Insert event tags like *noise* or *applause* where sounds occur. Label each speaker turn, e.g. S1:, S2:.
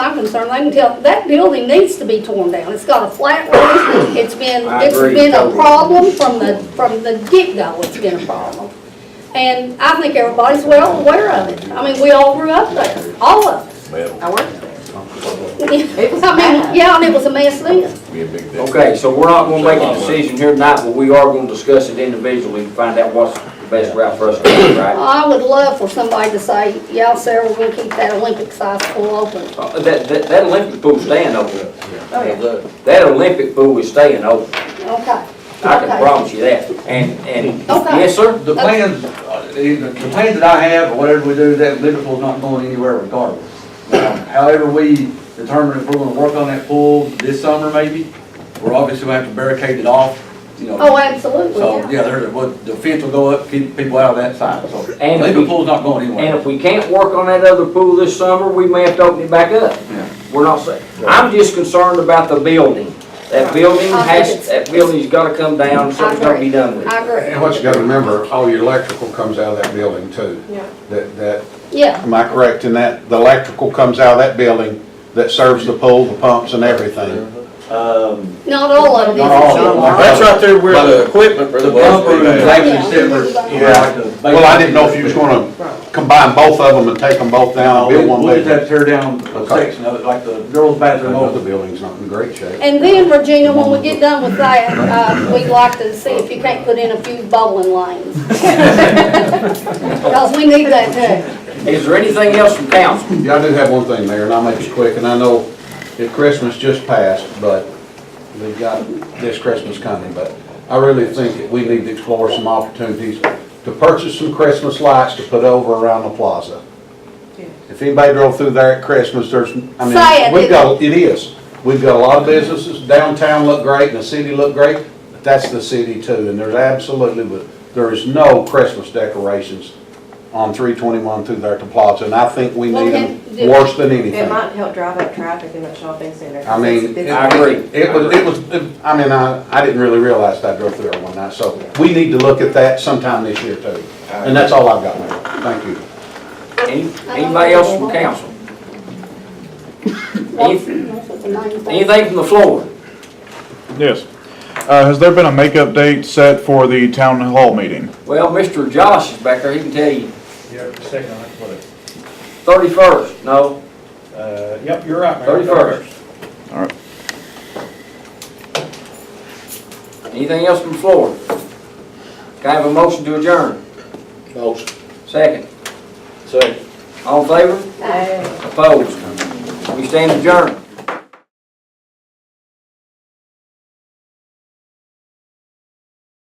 S1: concerned, I can tell, that building needs to be torn down. It's got a flat roof, it's been,
S2: I
S1: it's
S2: agree
S1: been a
S2: totally.
S1: problem from the, from the get-go, it's been a problem. And I think everybody's well aware of it. I mean, we all grew up there, all of us.
S3: Well,
S4: I worked there.
S1: I mean,
S4: It was bad.
S1: yeah, and it was a mess then.
S3: we a big deal.
S2: Okay, so we're not gonna make a decision here tonight, but we are gonna discuss it individually and find out what's the best route for us to go, right?
S1: I would love for somebody to say, yeah, Sarah, we're gonna keep that Olympic size pool open.
S2: Uh, That, that, that Olympic pool's staying open.
S4: Oh, yeah.
S2: That Olympic pool is staying open,
S1: Okay.
S2: I can
S1: Okay.
S2: promise you that. And, and,
S1: Okay.
S2: yes, sir?
S5: The plans, uh, the the plans that I have, or whatever we do, that Olympic pool's not going anywhere regardless. Um, However, we determine if we're gonna work on that pool this summer maybe, we're obviously gonna have to barricade it off, you know.
S1: Oh, absolutely,
S5: So,
S1: yeah.
S5: yeah, there, but the fence will go up, keep people out of that side, so.
S2: And
S5: Olympic
S2: we-
S5: pool's not going
S2: And
S5: anywhere.
S2: if we can't work on that other pool this summer, we may have to open it back up.
S5: Yeah.
S2: We're not saying, I'm just concerned about the building. That building
S1: I think
S2: has,
S1: it's-
S2: that building's gotta come down, something's gotta be done with it.
S1: I agree.
S6: And what you gotta remember, all your electrical comes out of that building too.
S4: Yeah.
S6: That, that,
S1: Yeah,
S6: am I correct in that? The electrical comes out of that building that serves the pool, the pumps and everything.
S1: not all of it.
S6: Not all of it.
S3: That's right there where the equipment for the
S5: The
S3: bumper.
S5: bumper is
S3: and-
S1: Yeah.
S5: actually separate. you know,
S6: Yeah.
S5: like the-
S6: Well, I didn't know if you was gonna combine both of them and take them both down
S5: No,
S6: and
S5: we-
S6: build one
S5: We'll just have
S6: big.
S5: to tear down a
S6: Okay.
S5: section of it, like the girls' bathroom over.
S6: Another building's not in great shape.
S1: And then, Regina, when we get done with that, uh, we'd like to see if you can't put in a few bowling *laughs* lanes. Because we need that too.
S2: Is there anything else from council?
S6: Yeah, I do have one thing, Mayor, and I'll make it quick, and I know that Christmas just passed, but we've got this Christmas coming, but I really think that we need to explore some opportunities to purchase some Christmas lights to put over around the plaza.
S4: Yeah.
S6: If anybody drove through there at Christmas, there's,
S1: Say
S6: I
S1: it.
S6: mean, we've got, it is. We've got a lot of businesses, downtown look great, and the city look great, but that's the city too, and there's absolutely, there is no Christmas decorations on three twenty-one through there at the plaza, and I think we
S1: Well,
S6: need
S1: then,
S6: them
S1: do-
S6: worse than
S4: It
S6: anything.
S4: might help drive up traffic in that shopping center.
S6: I mean,
S4: It's-
S2: I agree.
S6: It was, it was, it- I mean, I, I didn't really realize that I drove through there one night, so we need to look at that sometime this year too. And that's all I've got, Mayor. Thank you.
S2: Any- Anybody else from council? Anything- Anything from the floor?
S7: Yes. Uh, Has there been a makeup date set for the town hall meeting?
S2: Well, Mr. Josh is back there, he can tell you.
S8: Yeah, the second, that's what it,
S2: Thirty-first, no,
S8: uh, yep, you're right, Mayor.
S2: thirty-first.
S7: All right.
S2: Anything else from the floor? Can I have a motion to adjourn?
S6: Motion.
S2: Second.
S3: Say.
S2: All in favor?
S4: Hey.
S2: Opposed? We stand adjourned.